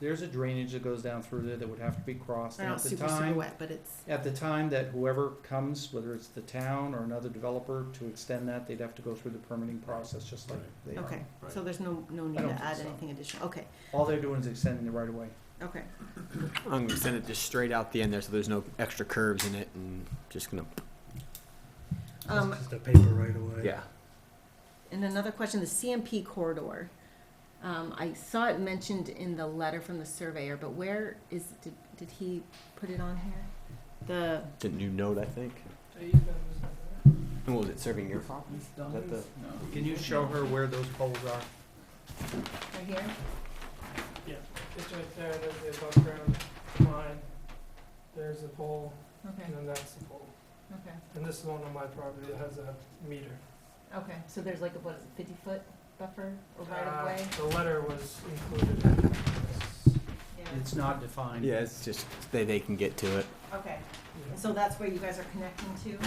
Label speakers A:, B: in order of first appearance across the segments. A: there's a drainage that goes down through there that would have to be crossed.
B: They're
A: And
B: not
A: at the
B: super, super
A: time,
B: wet, but it's,
A: at the time that whoever comes, whether it's the town or another developer, to extend that, they'd have to go through the permitting process, just like
C: Right.
A: they are.
B: okay,
C: Right.
B: so there's no, no need
A: don't
B: to
A: think
B: add
A: so.
B: anything additional, okay,
A: All they're doing is extending the right of way.
B: okay.
D: I'm gonna send it just straight out the end there, so there's no extra curves in it, and just gonna
B: Um,
C: Just a paper right away.
D: yeah.
B: and another question, the CMP corridor. Um, I saw it mentioned in the letter from the surveyor, but where is, did, did he put it on here? The,
D: Didn't you note? I think. And what was it serving your copies? Is that the
A: Can you show her where those poles are?
B: right here?
E: It's right there, there's the above ground line, there's the pole,
B: Okay,
E: and then that's the pole.
B: okay,
E: And this is one on my property that has a meter.
B: okay, so there's like a, what is it, fifty foot buffer or
E: Uh, The letter was included in this.
A: It's not defined.
D: Yeah, it's just they they can get to it.
B: Okay,
E: Yeah.
B: and so that's where you guys are connecting to?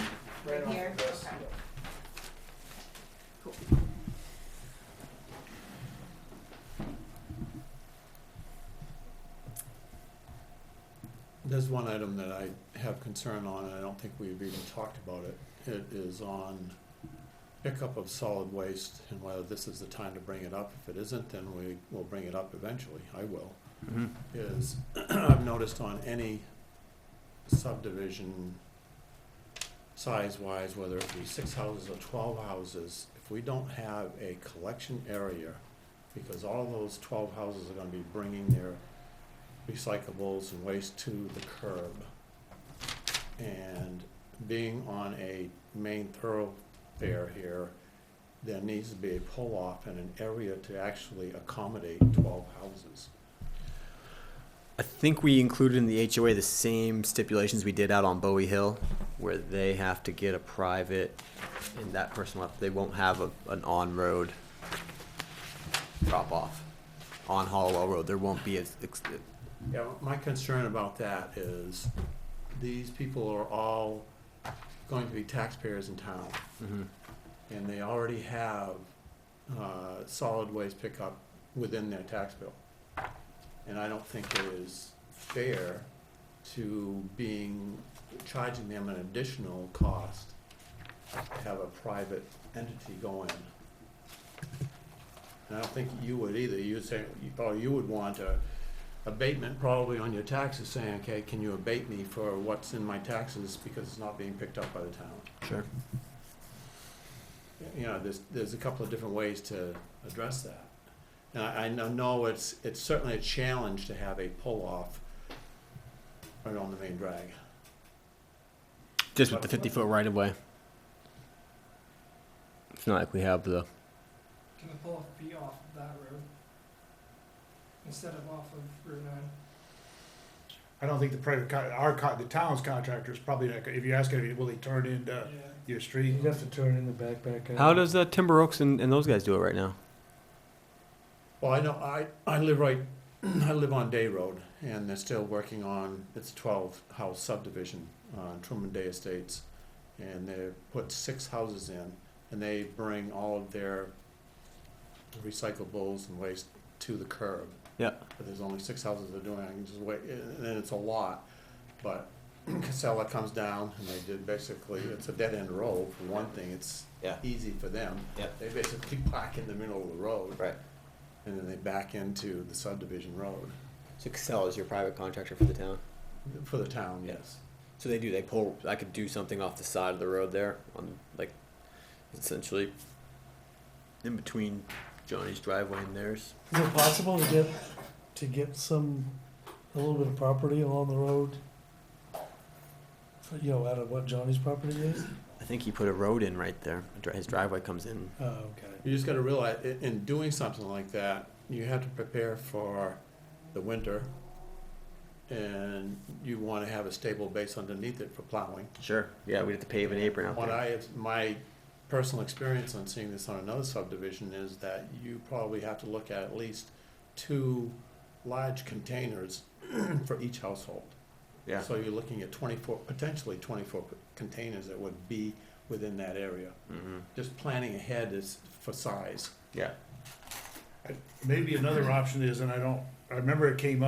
B: Right
E: off
B: here?
E: of this,
B: Okay.
E: yeah.
C: There's one item that I have concern on, and I don't think we've even talked about it. It is on pickup of solid waste and whether this is the time to bring it up. If it isn't, then we will bring it up eventually. I will.
D: Mm-hmm.
C: Is, I've noticed on any subdivision, size-wise, whether it be six houses or twelve houses, if we don't have a collection area, because all those twelve houses are gonna be bringing their recyclables and waste to the curb. And being on a main thoroughfare here, there needs to be a pull-off and an area to actually accommodate twelve houses.
D: I think we included in the HOA the same stipulations we did out on Bowie Hill, where they have to get a private, and that person will, they won't have a, an on-road drop-off on Hollowell Road. There won't be a, ex- uh,
C: Yeah, my concern about that is these people are all going to be taxpayers in town,
D: mhm.
C: and they already have, uh, solid waste pickup within their tax bill. And I don't think it is fair to being, charging them an additional cost to have a private entity go in. And I don't think you would either, you'd say, or you would want a abatement probably on your taxes, saying, okay, can you abate me for what's in my taxes because it's not being picked up by the town?
D: Sure.
C: You know, there's, there's a couple of different ways to address that. And I, I know- know it's, it's certainly a challenge to have a pull-off right on the main drag.
D: Just with the fifty-foot right-of-way. It's not like we have the,
E: Can the pole be off of that road? Instead of off of Route nine?
F: I don't think the private, con- our, con- the town's contractor is probably not, gonna- if you ask him, will he turn into
E: Yeah.
F: your street?
E: You'd have to
F: turn in the backpack.
D: how does uh, Timber Oaks and, and those guys do it right now?
C: Well, I know, I, I live right, I live on Day Road, and they're still working on, it's twelve house subdivision on Truman Day Estates. And they put six houses in, and they bring all of their recyclables and waste to the curb.
D: Yeah.
C: But there's only six houses they're doing, I can just wait, and and it's a lot, but Casella comes down, and they did basically, it's a dead-end road, for one thing, it's
D: Yeah.
C: easy for them.
D: Yeah.
C: They basically park in the middle of the road and then they back into the subdivision road
D: So Casella is your private contractor for the town?
C: for the town,
D: Yeah.
C: yes.
D: So they do. They pull. I could do something off the side of the road there, on like, essentially, in between Johnny's driveway and theirs.
G: Is it possible to get, to get some, a little bit of property along the road? For, You know, out of what Johnny's property is?
D: I think he put a road in right there. Dri- His driveway comes in.
G: Oh, okay.
C: You just gotta realize, i- in doing something like that, you have to prepare for the winter. And you wanna have a stable base underneath it for plowing.
D: Sure. Yeah, we'd have to pave an apron out
C: What
D: there.
C: I have, my personal experience on seeing this on another subdivision is that you probably have to look at at least two large containers for each household.
D: Yeah.
C: So you're looking at twenty-four, potentially twenty-four p- containers that would be within that area.
D: Mm-hmm.
C: Just planning ahead is for size.
D: Yeah.
F: Maybe another option is, and I don't, I remember it came up.